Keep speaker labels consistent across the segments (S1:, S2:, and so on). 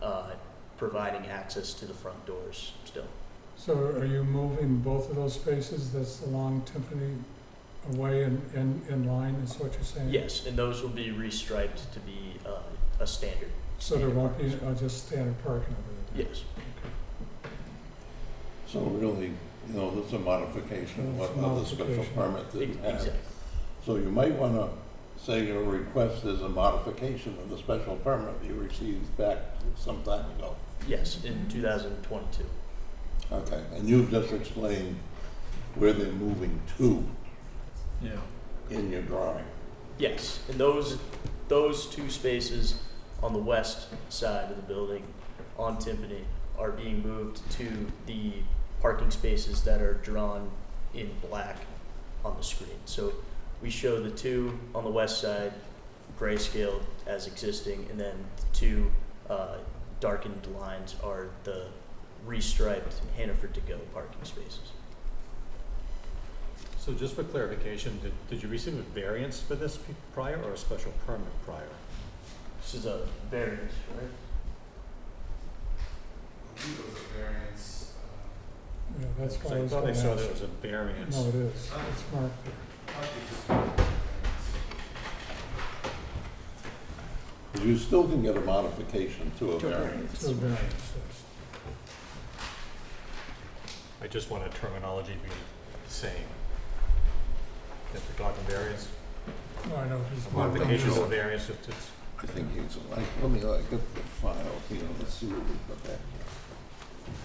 S1: uh, providing access to the front doors still.
S2: So are you moving both of those spaces that's along Tiffany away and, and in line, is what you're saying?
S1: Yes, and those will be restriped to be uh, a standard,
S2: So there won't be, uh, just standard parking over there?
S1: yes.
S3: So really, you know, there's a modification of what
S2: It's a
S3: other special
S2: modification.
S3: permit
S1: E-
S3: didn't
S1: Exactly.
S3: have. So you might want to say your request is a modification of the special permit you received back some time ago.
S1: Yes, in 2022.
S3: Okay, and you've just explained where they're moving to
S4: Yeah.
S3: in your drawing.
S1: Yes, and those, those two spaces on the west side of the building on Timpani are being moved to the parking spaces that are drawn in black on the screen. So we show the two on the west side grayscaled as existing, and then the two uh, darkened lines are the restriped Hannaford to go parking spaces.
S4: So just for clarification, did, did you receive a variance for this pe- prior or a special permit prior?
S1: This is a variance, right?
S5: believe it was a variance, uh,
S2: Yeah, that's
S4: Because
S2: why I
S4: I
S2: was
S4: thought I
S2: gonna
S4: saw there
S2: ask.
S4: was a variance.
S2: No, it is, it's marked there.
S5: might be just a variance.
S3: You still can get a modification to a variance.
S2: It's a variance, yes.
S4: I just want a terminology to be the same. If we're talking variance,
S2: No, I know, it's marked on
S4: modification is a
S2: this.
S3: Modifications.
S4: variance, it's, it's,
S3: I think he's like, let me, like get the file here, let's see what we put back here.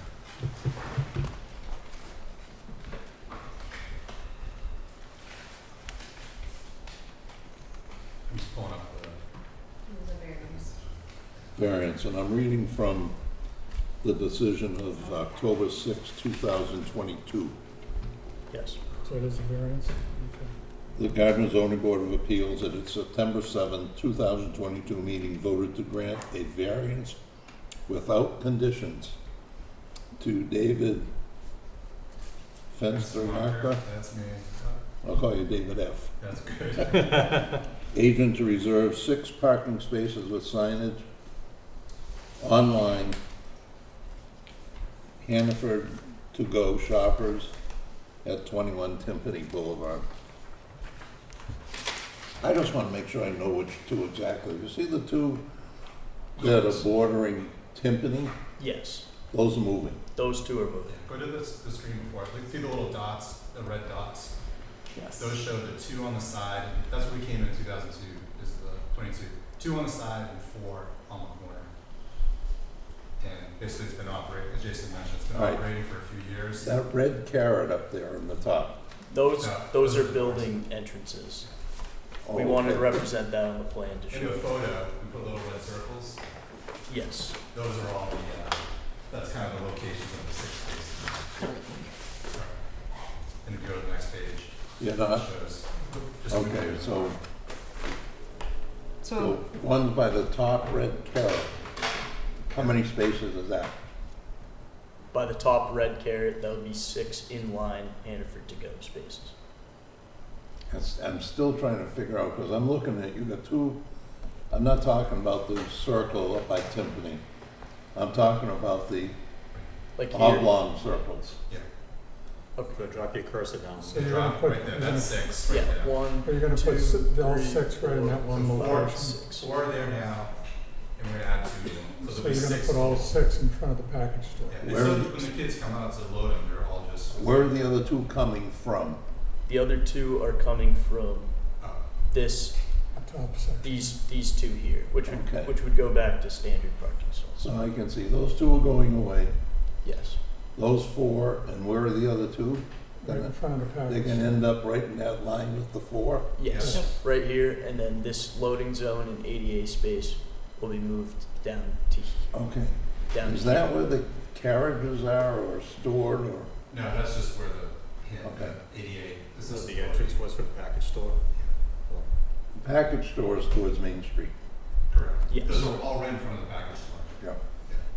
S5: I'm just pulling up the.
S3: variance, and I'm reading from the decision of October 6, 2022.
S1: Yes.
S2: So it is a variance, okay.
S3: The Gardner zoning board of appeals at its September 7, 2022 meeting voted to grant a variance without conditions to David Fenstermacher,
S5: That's me.
S3: I'll call you David F.,
S5: That's good.
S3: agent to reserve six parking spaces with signage online, Hannaford to-go shoppers at 21 Timpani Boulevard. I just want to make sure I know which two exactly. You see the two that are bordering Timpani?
S1: Yes,
S3: Those are moving.
S1: those two are moving.
S5: Go to the, s- the screen before, like, see the little dots, the red dots? Yes. Those show the two on the side, that's where we came in two thousand two, is the twenty-two, two on the side and four on the corner. And basically, it's been operating, as Jason mentioned, it's been
S3: All right.
S5: operating for a few years.
S3: That red carrot up there in the top.
S1: Those,
S5: Yeah.
S1: those are building entrances.
S3: Oh,
S1: We wanted to represent that on the plan to
S5: In the
S1: show,
S5: photo, we put little red circles,
S1: yes,
S5: those are all the, uh, that's kind of the locations of the six spaces. And if you go to the next page,
S3: You're
S5: it
S3: not?
S5: shows. just move
S3: Okay,
S5: it.
S3: so The
S6: So,
S3: one by the top red carrot, how many spaces is that?
S1: by the top red carrot, that would be six inline Hannaford to go spaces.
S3: That's- I'm still trying to figure out, because I'm looking at, you got two, I'm not talking about the circle up by Timpani. I'm talking about the
S1: Like here,
S3: oblong circles.
S4: go drop your cursor down.
S2: So you're gonna
S5: Drop
S2: put,
S5: right there,
S2: you're
S5: that's
S2: gonna-
S5: six right
S1: yeah,
S5: there.
S1: one,
S2: are you gonna
S1: two,
S2: put si- the all
S1: three,
S2: six right in
S1: four,
S2: that one
S5: four,
S2: location?
S1: six.
S5: Four are there now, and we're gonna add two.
S2: So
S5: there'll be
S2: you're gonna
S5: six.
S2: put all six in front of the package store?
S5: Yeah, and
S3: Where-
S5: so when the kids come out to load them, they're all just.
S3: Where are the other two coming from?
S1: The other two are coming from
S5: Oh,
S1: this,
S2: The top section?
S1: these, these two here, which
S3: Okay.
S1: would, which would go back to standard parking stalls.
S3: So I can see those two are going away,
S1: Yes,
S3: those four, and where are the other two?
S2: Right in front of the
S3: They're
S2: package?
S3: gonna end up right in that line with the four?
S1: yes,
S2: Yes.
S1: right here, and then this loading zone and ADA space will be moved down to,
S3: Okay,
S1: down to.
S3: is that where the carriages are or stored or?
S5: No, that's just where the, yeah,
S3: Okay.
S5: the eighty-eight.
S4: This is the entrance was for the package store.
S3: Package stores towards Main Street.
S5: Correct.
S1: Yes.
S5: Those are all right in front of the package store.
S3: Yeah.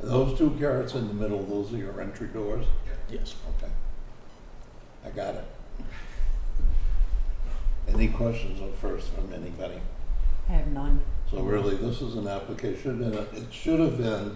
S3: Those two carrots in the middle, those are your entry doors?
S1: Yes.
S3: Okay. I got it. Any questions at first from anybody?
S6: I have none.
S3: So really, this is an application, and it- it should have been